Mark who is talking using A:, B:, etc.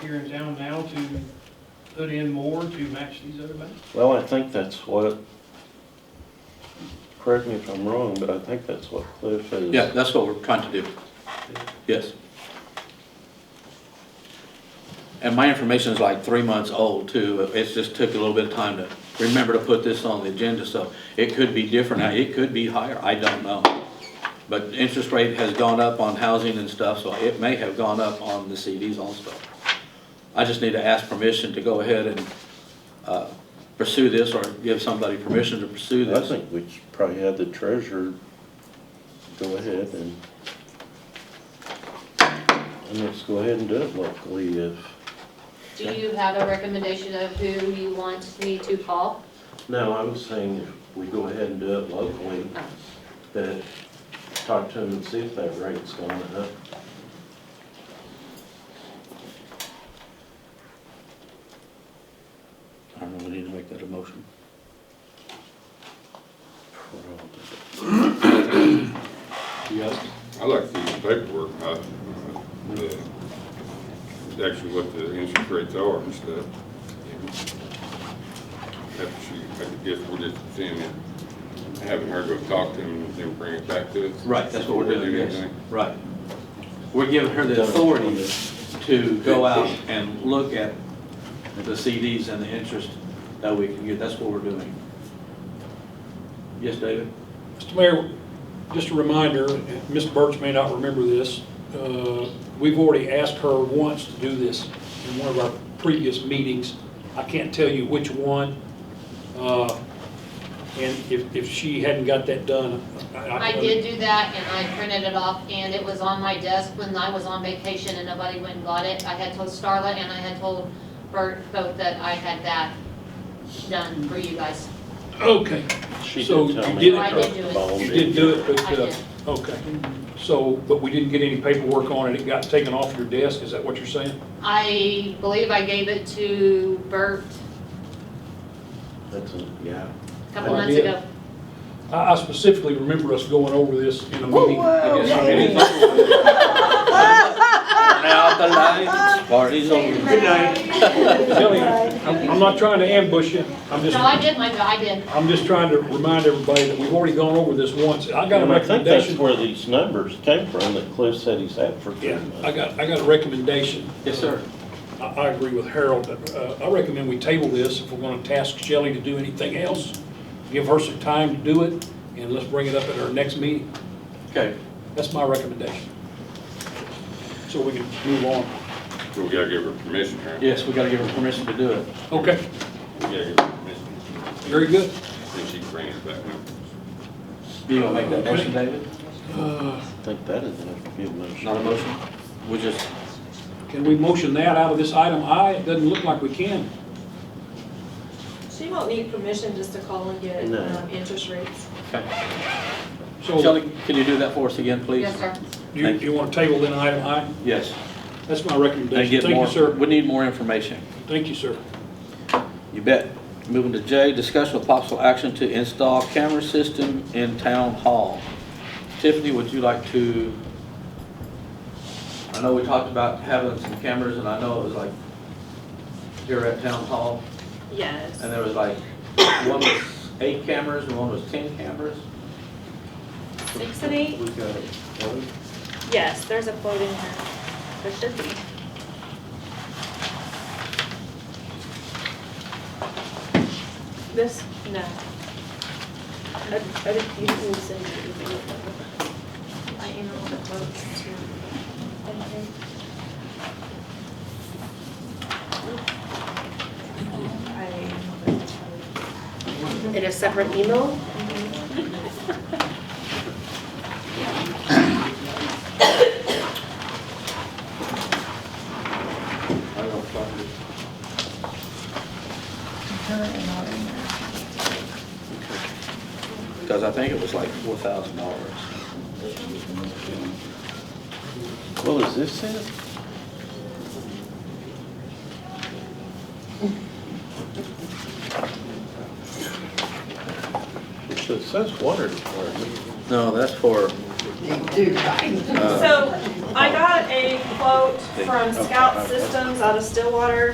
A: here in town now to put in more to match these other banks?
B: Well, I think that's what, correct me if I'm wrong, but I think that's what Cliff is.
C: Yeah, that's what we're trying to do. Yes. And my information is like three months old too. It's just took a little bit of time to remember to put this on the agenda, so it could be different. It could be higher. I don't know. But interest rate has gone up on housing and stuff, so it may have gone up on the CDs also. I just need to ask permission to go ahead and uh, pursue this or give somebody permission to pursue
B: I
C: this.
B: think we should probably had the treasurer go ahead and, and let's go ahead and do it locally if,
D: Do you have a recommendation of who you want me to call?
B: no, I'm saying if we go ahead and do it locally,
D: Oh.
B: that, talk to them and see if that rate's going up.
C: I don't know, we need to make that a motion. Yes.
E: I like the paperwork, uh, the, actually what the interest rates are and stuff. After she, I guess we're just seeing it, having her go talk to him and then bring it back to us.
C: Right, that's what we're doing, yes,
E: Anything.
C: right. We're giving her the authority to go out and look at the CDs and the interest that we can get, that's what we're doing. Yes, David?
F: Mr. Mayor, just a reminder, Mr. Birch may not remember this, uh, we've already asked her once to do this in one of our previous meetings. I can't tell you which one. uh, And if, if she hadn't got that done, I...
D: I did do that and I printed it off and it was on my desk when I was on vacation and nobody went and got it. I had told Starla and I had told Bert both that I had that done for you guys.
F: Okay,
B: She
F: So
B: did tell
F: you
B: me.
F: did it,
B: about
D: I did do it.
B: Ball
F: you did do it, but,
D: I
F: uh,
D: did.
F: okay. So, but we didn't get any paperwork on it, it got taken off your desk, is that what you're saying?
D: I believe I gave it to Bert
B: That's, a- yeah.
D: a couple
F: Oh,
D: months
F: did?
D: ago.
F: I I specifically remember us going over this in a meeting. I guess.
C: Anything? Now the lights, party's over.
F: Good night. Tell you, I'm, I'm not trying to ambush you, I'm
D: No, I
F: just,
D: did, Michael, I did.
F: I'm just trying to remind everybody that we've already gone over this once. I got a
B: And I think that's
F: recommendation.
B: where these numbers came from that Cliff said he's had for three
F: Yeah,
B: months.
F: I got, I got a recommendation.
C: Yes, sir.
F: I, I agree with Harold, but, uh, I recommend we table this if we're gonna task Shelley to do anything else. Give her some time to do it, and let's bring it up at our next meeting.
C: Okay,
F: That's my recommendation. So we can move on.
E: So we gotta give her permission, right?
C: yes, we gotta give her permission to do it.
F: Okay,
E: We gotta give her permission,
F: very good.
E: then she can bring it back.
C: You gonna make that motion, David?
B: I think that is enough to give a motion.
C: Not a motion? We just,
F: Can we motion that out of this item I? It doesn't look like we can.
G: She won't need permission just to call and get
B: No.
G: um, interest rates.
C: okay.
F: So.
C: Shelley, can you do that for us again, please?
D: Yes, sir.
F: You, you want to table then item I?
C: Yes.
F: That's my
C: And
F: recommendation.
C: get
F: Thank
C: more,
F: you, sir.
C: we need more information.
F: Thank you, sir.
C: You bet. Moving to J, discussion with possible action to install camera system in town hall. Tiffany, would you like to? I know we talked about having some cameras and I know it was like here at town hall
G: Yes.
C: and there was like, one was eight cameras and one was 10 cameras.
G: Six and eight?
B: We got it.
G: Yes, there's a quote in here. There should be. This, no. I, I didn't, you didn't send me the quote. I emailed the quotes to.
H: in a separate email.
C: I don't know if I could- Because I think it was like $4,000.
B: Well, is this it? So it says water department.
C: No, that's for
G: So I got a quote from Scout Systems out of Stillwater